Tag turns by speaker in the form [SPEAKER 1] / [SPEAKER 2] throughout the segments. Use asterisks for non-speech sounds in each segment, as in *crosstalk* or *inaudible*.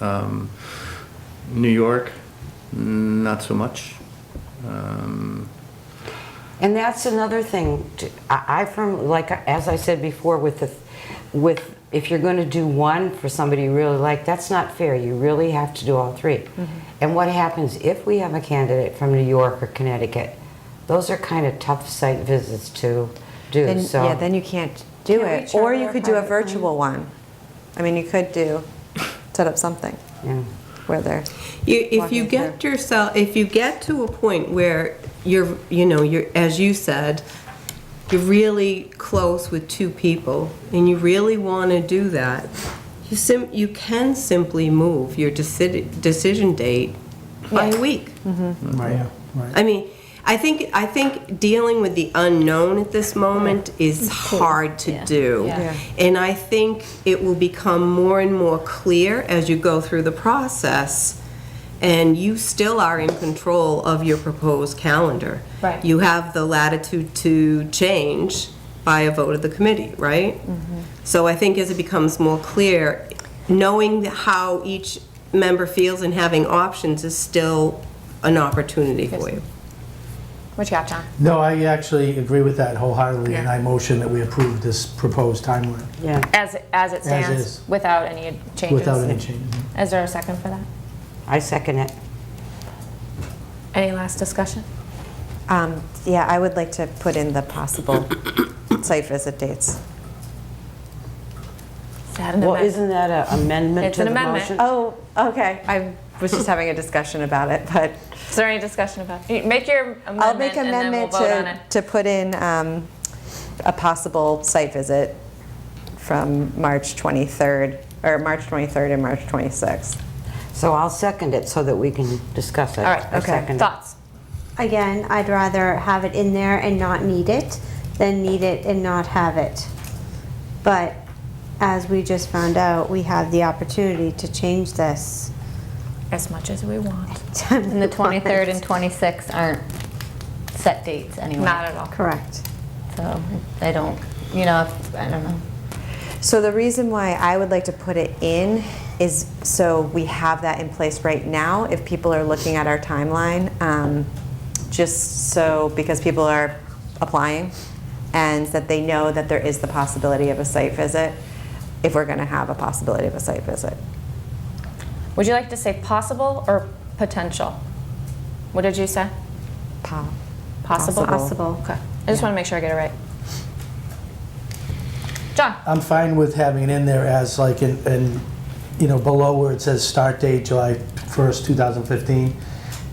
[SPEAKER 1] Um, New York, not so much. Um,
[SPEAKER 2] And that's another thing, to- I I firm like, as I said before, with the, with, if you're going to do one for somebody you really like, that's not fair, you really have to do all three.
[SPEAKER 3] Mm-hmm.
[SPEAKER 2] And what happens if we have a candidate from New York or Connecticut? Those are kind of tough site visits to do,
[SPEAKER 4] Then,
[SPEAKER 2] so.
[SPEAKER 4] yeah, then you can't do
[SPEAKER 3] Can't
[SPEAKER 4] it.
[SPEAKER 3] reach
[SPEAKER 4] Or
[SPEAKER 3] out
[SPEAKER 4] you
[SPEAKER 3] or
[SPEAKER 4] could do a
[SPEAKER 3] private phone.
[SPEAKER 4] virtual one. I mean, you could do, set up something
[SPEAKER 2] yeah.
[SPEAKER 4] where they're,
[SPEAKER 5] You, if
[SPEAKER 4] Walking
[SPEAKER 5] you
[SPEAKER 4] through.
[SPEAKER 5] get yourself, if you get to a point where you're, you know, you're, as you said, you're really close with two people, and you really want to do that, you sim, you can simply move your deci- decision date by a week.
[SPEAKER 6] Right, right.
[SPEAKER 5] I mean, I think, I think dealing with the unknown at this moment is hard to do.
[SPEAKER 3] Yeah.
[SPEAKER 5] And I think it will become more and more clear as you go through the process, and you still are in control of your proposed calendar.
[SPEAKER 3] Right.
[SPEAKER 5] You have the latitude to change by a vote of the committee, right?
[SPEAKER 3] Mm-hmm.
[SPEAKER 5] So I think as it becomes more clear, knowing how each member feels and having options is still an opportunity for you.
[SPEAKER 3] What you got, John?
[SPEAKER 6] No, I actually agree with that wholeheartedly, and
[SPEAKER 3] Yeah.
[SPEAKER 6] I motion that we approve this proposed timeline
[SPEAKER 2] Yeah.
[SPEAKER 3] As, as it stands?
[SPEAKER 6] is.
[SPEAKER 3] Without any changes?
[SPEAKER 6] without any changes.
[SPEAKER 3] Is there a second for that?
[SPEAKER 2] I second it.
[SPEAKER 3] Any last discussion?
[SPEAKER 4] um, yeah, I would like to put in the possible site visit dates.
[SPEAKER 3] Is that an
[SPEAKER 2] Well,
[SPEAKER 3] amendment?
[SPEAKER 2] isn't that an amendment
[SPEAKER 3] It's
[SPEAKER 2] to
[SPEAKER 3] an
[SPEAKER 2] the
[SPEAKER 3] amendment.
[SPEAKER 2] motion?
[SPEAKER 4] Oh, okay. I was just having a discussion about it, but
[SPEAKER 3] Is there any discussion about, you make your
[SPEAKER 4] I'll make
[SPEAKER 3] amendment and then we'll
[SPEAKER 4] amendment
[SPEAKER 3] vote on it.
[SPEAKER 4] to, to put in um, a possible site visit from March 23rd, or March 23rd and March 26th.
[SPEAKER 2] So I'll second it so that we can discuss it.
[SPEAKER 3] All right,
[SPEAKER 2] I second
[SPEAKER 3] okay,
[SPEAKER 2] it.
[SPEAKER 3] thoughts?
[SPEAKER 7] Again, I'd rather have it in there and not need it than need it and not have it. But as we just found out, we have the opportunity to change this.
[SPEAKER 3] As much as we want.
[SPEAKER 7] *laughs*
[SPEAKER 8] And the 23rd and 26th aren't set dates anyway.
[SPEAKER 3] Not at all.
[SPEAKER 7] Correct.
[SPEAKER 8] So I don't, you know, if- I don't know.
[SPEAKER 4] So the reason why I would like to put it in is so we have that in place right now if people are looking at our timeline, um, just so because people are applying and that they know that there is the possibility of a site visit if we're going to have a possibility of a site visit.
[SPEAKER 3] Would you like to say possible or potential? What did you say?
[SPEAKER 4] Pa-
[SPEAKER 3] Possible?
[SPEAKER 4] Possible.
[SPEAKER 3] Okay, I just want to make sure I get it right. John?
[SPEAKER 6] I'm fine with having it in there as like, in, in, you know, below where it says start date, July 1st, 2015,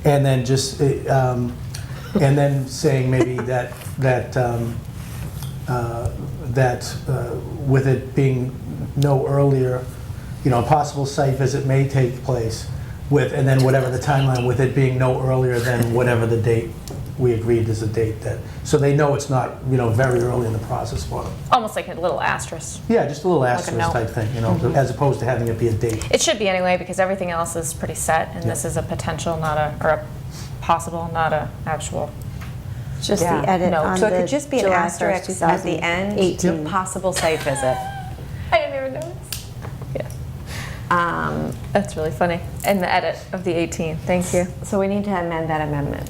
[SPEAKER 6] and then just, eh, um, and then saying maybe that, that, um, uh, that uh, with it being no earlier, you know, a possible site visit may take place with, and then whatever the timeline, with it being no earlier than whatever the date we agreed is the date that, so they know it's not, you know, very early in the process for them.
[SPEAKER 3] Almost like a little asterisk.
[SPEAKER 6] Yeah, just a little
[SPEAKER 3] a
[SPEAKER 6] asterisk
[SPEAKER 3] note. Mm-hmm.
[SPEAKER 6] type thing, you know, as opposed to having it be a date.
[SPEAKER 3] It should be anyway, because everything else is pretty set, and this is a potential, not a, or a possible, not a actual.
[SPEAKER 7] Just the
[SPEAKER 4] Yeah.
[SPEAKER 7] edit
[SPEAKER 3] No.
[SPEAKER 7] on
[SPEAKER 4] So it
[SPEAKER 7] the
[SPEAKER 4] could just be an
[SPEAKER 7] July
[SPEAKER 4] asterisk
[SPEAKER 7] 1st,
[SPEAKER 4] at the end,
[SPEAKER 7] 2018.
[SPEAKER 4] possible site visit.
[SPEAKER 3] I didn't even notice. Yeah. Um, That's really funny. And the edit of the 18, thank you.
[SPEAKER 4] So we need to amend that amendment.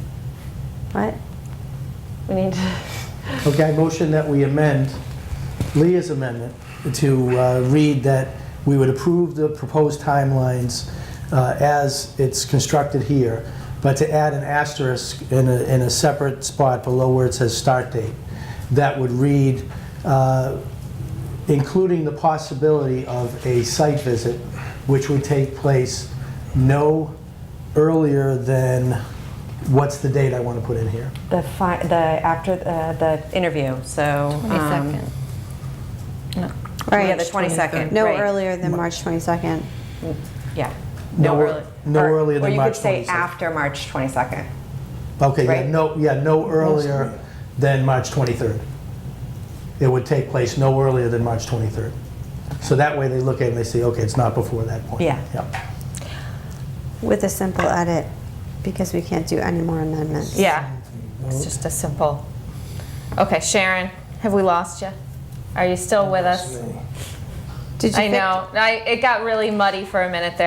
[SPEAKER 7] What?
[SPEAKER 3] We need to.
[SPEAKER 6] Okay, I motion that we amend Leah's amendment to uh, read that we would approve the proposed timelines uh, as it's constructed here, but to add an asterisk in a, in a separate spot below where it says start date. That would read, uh, including the possibility of a site visit, which would take place no earlier than, what's the date I want to put in here?
[SPEAKER 4] The fi- the after the, the interview, so. um,
[SPEAKER 8] 22nd.
[SPEAKER 4] Oh, Yeah, the
[SPEAKER 7] Right.
[SPEAKER 4] 22nd.
[SPEAKER 7] No
[SPEAKER 4] right.
[SPEAKER 7] earlier than March 22nd.
[SPEAKER 4] Yeah.
[SPEAKER 6] No ear- no
[SPEAKER 4] or-
[SPEAKER 6] earlier than March
[SPEAKER 4] Or you could say
[SPEAKER 6] 22nd.
[SPEAKER 4] after March 22nd.
[SPEAKER 6] Okay, yeah,
[SPEAKER 4] Right?
[SPEAKER 6] no, yeah, no earlier than March 23rd. It would take place no earlier than March 23rd. So that way they look at it and they say, okay, it's not before that point.
[SPEAKER 4] Yeah.
[SPEAKER 6] Yeah.
[SPEAKER 7] With a simple edit, because we can't do any more amendments.
[SPEAKER 3] *laughs* Yeah, it's just a simple. Okay, Sharon, have we lost you? Are you still with us?
[SPEAKER 7] Did you
[SPEAKER 3] I
[SPEAKER 7] fix-
[SPEAKER 3] know. I, it got really muddy for a minute there.